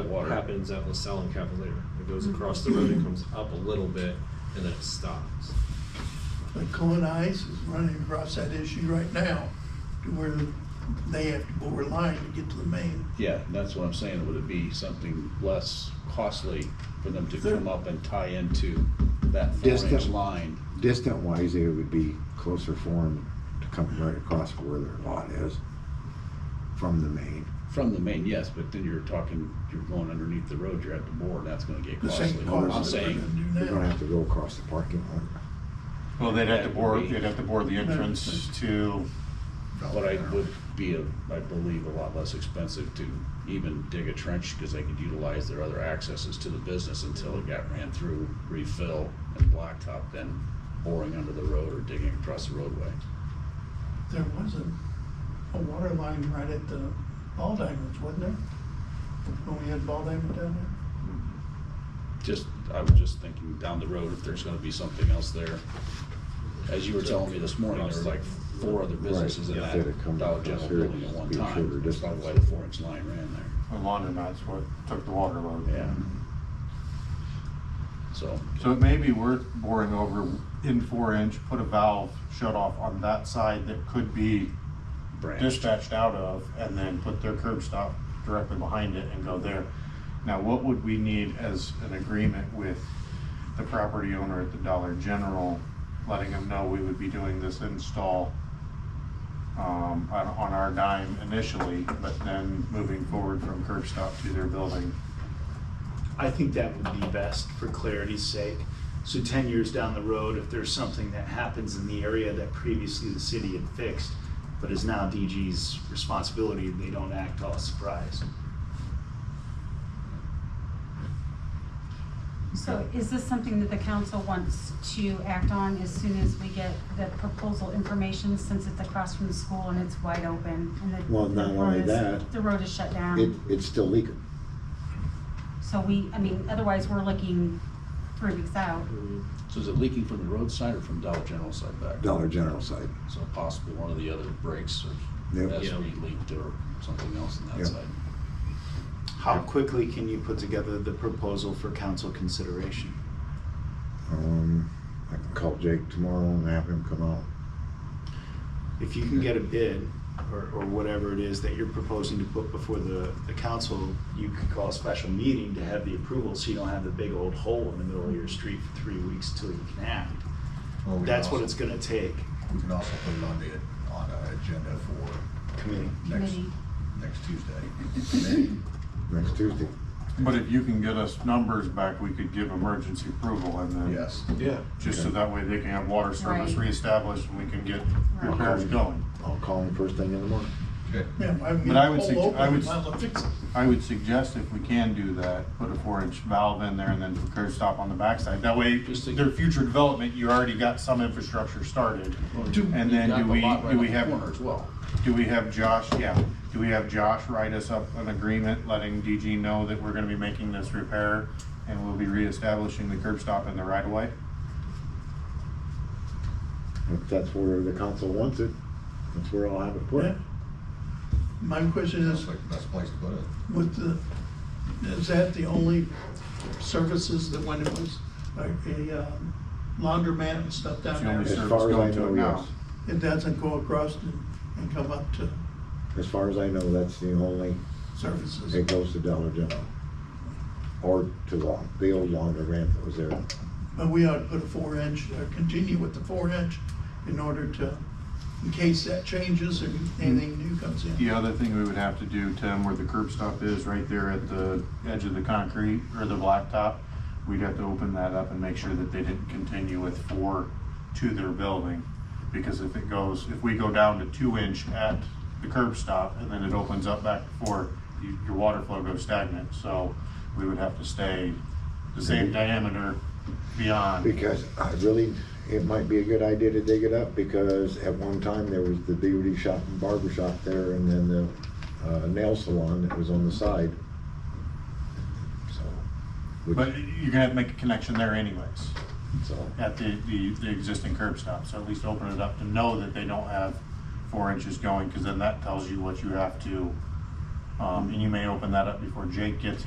water happens at LaSalle and Cavalier. It goes across the road and comes up a little bit and then it stops. But Cohen Ice is running across that issue right now to where they have to bore a line to get to the main. Yeah, and that's what I'm saying, would it be something less costly for them to come up and tie into that four-inch Distant. line? Distant wise, it would be closer for them to come right across where their lot is from the main. From the main, yes, but then you're talking, you're going underneath the road, you're at the bore, and that's gonna get The same costly. cost. I'm that we're saying, gonna do They're gonna now. have to go across the parking lot. Well, they'd have to That bore, would be- they'd have to bore the entrance to, but I would be, a- I believe, a lot less expensive to even dig a trench, because they could utilize their other accesses to the business until it got ran through, refill, and blacktop, then boring under the road or digging across the roadway. There was a, a water line right at the ball diamonds, wasn't there? When we had ball diamond down there? Just, I was just thinking down the road if there's gonna be something else there. As you were telling me this morning, there were like four other businesses in Right, that yeah. That'd come Dollar across General here, building at it'd one be a shorter time. That's probably why the distance. four inch line ran there. the laundromat's what took the water load. Yeah. So, So it may be worth boring over in four inch, put a valve shut off on that side that could be branch, dispatched out of, and then put their curb stop directly behind it and go there. Now, what would we need as an agreement with the property owner at the Dollar General, letting them know we would be doing this install um, on, on our dime initially, but then moving forward from curb stop to their building? I think that would be best for clarity's sake. So ten years down the road, if there's something that happens in the area that previously the city had fixed, but is now DG's responsibility, they don't act all surprised. So is this something that the council wants to act on as soon as we get the proposal information, since it's across from the school and it's wide open? and the- Well, not the only road is- that, The road is shut It, down, it's still leaking. so we, I mean, otherwise we're looking three weeks out. so is it leaking from the roadside or from Dollar General side back? Dollar General side. So possibly one of the other breaks or Yep. that's Yeah. re-leaked or something else on Yeah. that side. How quickly can you put together the proposal for council consideration? Um, I can call Jake tomorrow and have him come out. If you can get a bid or, or whatever it is that you're proposing to put before the, the council, you could call a special meeting to have the approval so you don't have the big old hole in the middle of your street for three weeks till you can act. Well, we That's can what it's also- gonna take, We can also put it on the, on our agenda for committee. next, Committee. next Tuesday. Next Tuesday. But if you can get us numbers back, we could give emergency approval and then. Yes, Yeah. Just so that way they can have water service Right. reestablished and we can get Right. repairs going. I'll call him first thing in the morning. okay. Yeah, I mean, But I would all sug- open, I would- might as well fix it. I would suggest if we can do that, put a four inch valve in there and then curb stop on the backside. That way, Just to- their future development, you already got some infrastructure started. And You then got do the we, lot right do on we the Corner have, as well. do we have Josh, yeah, do we have Josh write us up an agreement letting DG know that we're gonna be making this repair and we'll be reestablishing the curb stop in the right of way? If that's where the council wants it, that's where I'll have it put. Yeah. My question That's is, like the best place to put it. with the, is that the only services that when it was like a um, laundromat and stuff It's down the only there? As service far as I going to it know, now. yes. It doesn't go across and, and come up to As far as I know, that's the only, services? it goes to Dollar General. Or to the, the old laundromat that was there. But we ought to put a four inch, or continue with the four inch in order to, in case that changes or anything new comes in. The other thing we would have to do, Tim, where the curb stop is, right there at the edge of the concrete or the blacktop, we'd have to open that up and make sure that they didn't continue with four to their building. Because if it goes, if we go down to two inch at the curb stop and then it opens up back to four, you- your water flow goes stagnant. So we would have to stay the same diameter beyond. Because I really, it might be a good idea to dig it up because at one time there was the beauty shop and barber shop there and then the uh, nail salon that was on the side. So, But which, you're gonna have to make a connection there anyways. so, at the, the, the existing curb stop, so at least open it up to know that they don't have four inches going, because then that tells you what you have to, um, and you may open that up before Jake gets